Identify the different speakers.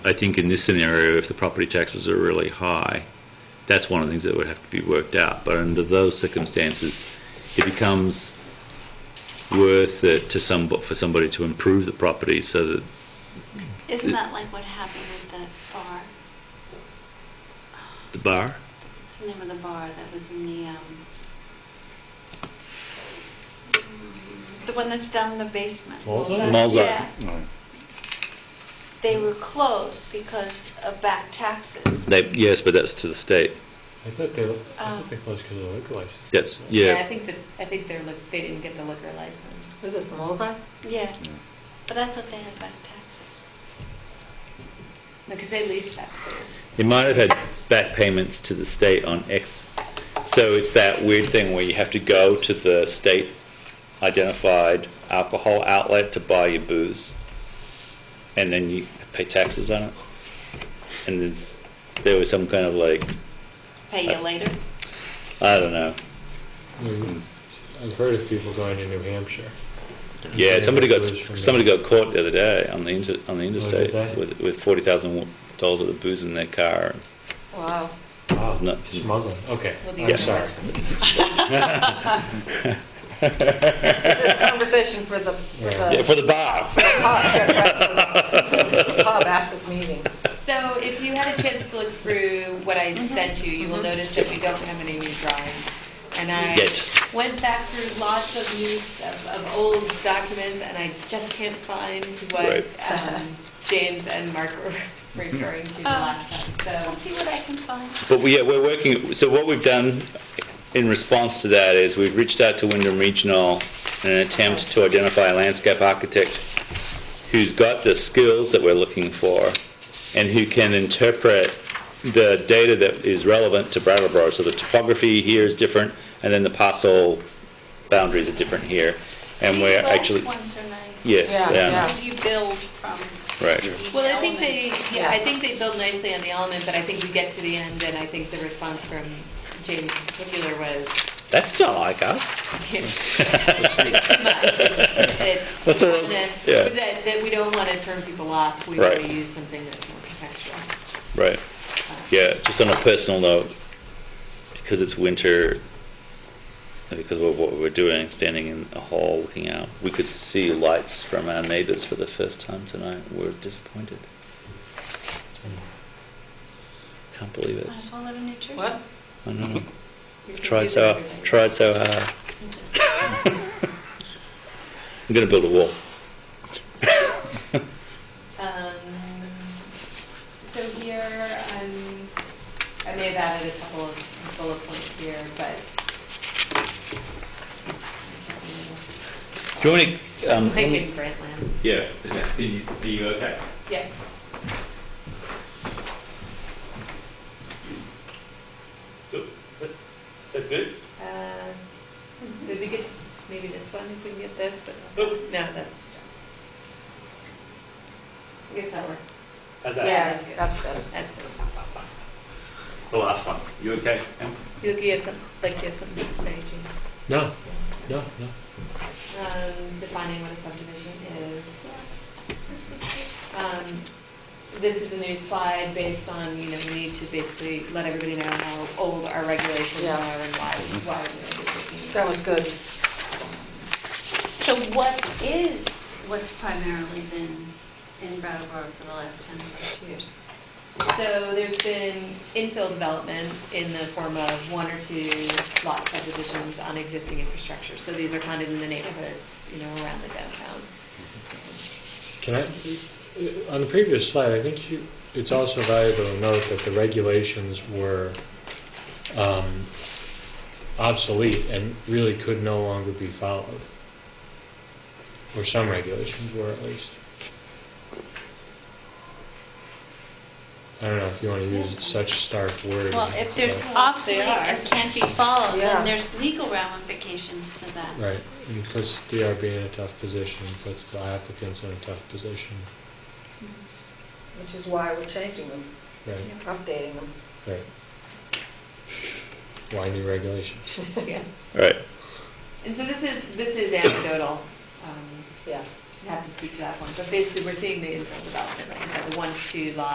Speaker 1: I think in this scenario, if the property taxes are really high, that's one of the things that would have to be worked out. But under those circumstances, it becomes worth it to some, for somebody to improve the property so that
Speaker 2: Isn't that like what happened with that bar?
Speaker 1: the bar,
Speaker 2: What's the name of the bar that was in the, um, the one that's down in the basement?
Speaker 3: Malzahn?
Speaker 1: Malzahn.
Speaker 2: Yeah, they were closed because of back taxes.
Speaker 1: they, yes, but that's to the state.
Speaker 3: I thought
Speaker 4: Um,
Speaker 3: they, I thought they closed because of the liquor license.
Speaker 1: That's,
Speaker 4: I
Speaker 1: yeah,
Speaker 4: think that, I think they're, look- they didn't get the liquor license.
Speaker 5: Is this the Molesey?
Speaker 2: Yeah, but I thought they had back taxes.
Speaker 4: Because they leased that space.
Speaker 1: it might have had back payments to the state on X. So it's that weird thing where you have to go to the state identified alcohol outlet to buy your booze, and then you pay taxes on it. And there's, there was some kind of like,
Speaker 2: Pay you
Speaker 1: Uh,
Speaker 2: later?
Speaker 1: I don't know,
Speaker 3: Hmm. I've heard of people going to New Hampshire.
Speaker 1: Yeah, somebody got
Speaker 3: Booze from
Speaker 1: somebody
Speaker 3: there.
Speaker 1: got caught the other day on the inter, on the interstate
Speaker 3: they?
Speaker 1: with with forty thousand dollars worth of booze in their car.
Speaker 5: Wow.
Speaker 3: Wow,
Speaker 1: No.
Speaker 3: smuggling, okay,
Speaker 4: Well, the
Speaker 3: I'm
Speaker 4: owner
Speaker 3: sorry.
Speaker 4: was from-
Speaker 5: This is a conversation for the, for the
Speaker 1: Yeah, for the bar.
Speaker 5: pub, that's right, for the pub after the meeting.
Speaker 4: So if you had a chance to look through what I
Speaker 5: Mm-hmm.
Speaker 4: sent you, you will notice that we don't have any new drawings. And I
Speaker 1: Yet.
Speaker 4: went back through lots of new, of, of old documents, and I just can't find what
Speaker 1: Right.
Speaker 4: um, James and Mark were referring to the
Speaker 5: Uh,
Speaker 4: last time,
Speaker 2: I'll
Speaker 4: so.
Speaker 2: see what I can find.
Speaker 1: But we, yeah, we're working, so what we've done in response to that is we've reached out to Wyndham Regional in an attempt to identify a landscape architect who's got the skills that we're looking for and who can interpret the data that is relevant to Brattleboro. So the topography here is different and then the parcel boundaries are different here. And
Speaker 2: These
Speaker 1: we're
Speaker 2: last
Speaker 1: actually,
Speaker 2: ones are nice.
Speaker 1: yes,
Speaker 5: Yeah,
Speaker 1: yeah,
Speaker 5: yeah.
Speaker 2: Because you build from
Speaker 1: right.
Speaker 2: each
Speaker 4: Well, I
Speaker 2: element.
Speaker 4: think they, yeah, I
Speaker 5: Yeah.
Speaker 4: think they build nicely on the element, but I think we get to the end, and I think the response from James in particular was,
Speaker 1: That's not like us.
Speaker 4: it's too much. It's
Speaker 1: That's all I was-
Speaker 4: that,
Speaker 1: yeah.
Speaker 4: that, that we don't want to turn people off. We
Speaker 1: Right.
Speaker 4: want to use something that's more contextual. Uh,
Speaker 1: Right. Yeah, just on a personal note, because it's winter, and because of what we're doing, standing in a hall looking out, we could see lights from our neighbors for the first time tonight. We're disappointed. Can't believe it.
Speaker 2: Might as well live in New Jersey.
Speaker 5: What?
Speaker 1: I know.
Speaker 4: You're
Speaker 1: Tried
Speaker 4: confusing
Speaker 1: so,
Speaker 4: everybody.
Speaker 1: tried so hard. I'm going to build a wall.
Speaker 4: Um, so here, um, I may have added a couple of bullet points here, but.
Speaker 1: Do you want me to? Um,
Speaker 4: Like in Grantland.
Speaker 1: yeah. Are you, are you okay?
Speaker 4: Yeah.
Speaker 1: That good?
Speaker 4: Uh, Did we get, maybe this one, if we can get this, but no, that's too dark. I guess that works.
Speaker 1: How's
Speaker 5: Yeah,
Speaker 4: that's good.
Speaker 5: that's better.
Speaker 4: That's it.
Speaker 1: The last one. You okay?
Speaker 4: You look, you have some, like you have something to say, James.
Speaker 3: No, no, no.
Speaker 4: Um, defining what a subdivision is. Um, This is a new slide based on, you know, we need to basically let everybody know how old our regulations
Speaker 5: Yeah.
Speaker 4: are and why, why we're looking.
Speaker 5: That was good.
Speaker 2: So what is, what's primarily been in Brattleboro for the last 10 plus years?
Speaker 4: So there's been infill development in the form of one or two lot subdivisions on existing infrastructure. So these are kind of in the neighborhoods, you know, around the downtown.
Speaker 3: Can I, on the previous slide, I think you, it's also valuable to note that the regulations were um, obsolete and really could no longer be followed. Or some regulations were at least. I don't know if you want to use such stark words.
Speaker 2: Well, if they're
Speaker 3: but-
Speaker 2: obsolete
Speaker 4: They are.
Speaker 2: and can't be followed,
Speaker 5: Yeah.
Speaker 2: then there's legal ramifications to that.
Speaker 3: Right, and puts DRB in a tough position, puts the applicants in a tough position,
Speaker 5: Which is why we're changing them,
Speaker 3: right,
Speaker 5: updating them.
Speaker 3: right. Why new regulations?
Speaker 4: Yeah.
Speaker 1: Right.
Speaker 4: And so this is, this is anecdotal. Um,
Speaker 5: Yeah.
Speaker 4: I Have to speak to that one, but basically, we're seeing the infill development, like I said, the one to two lot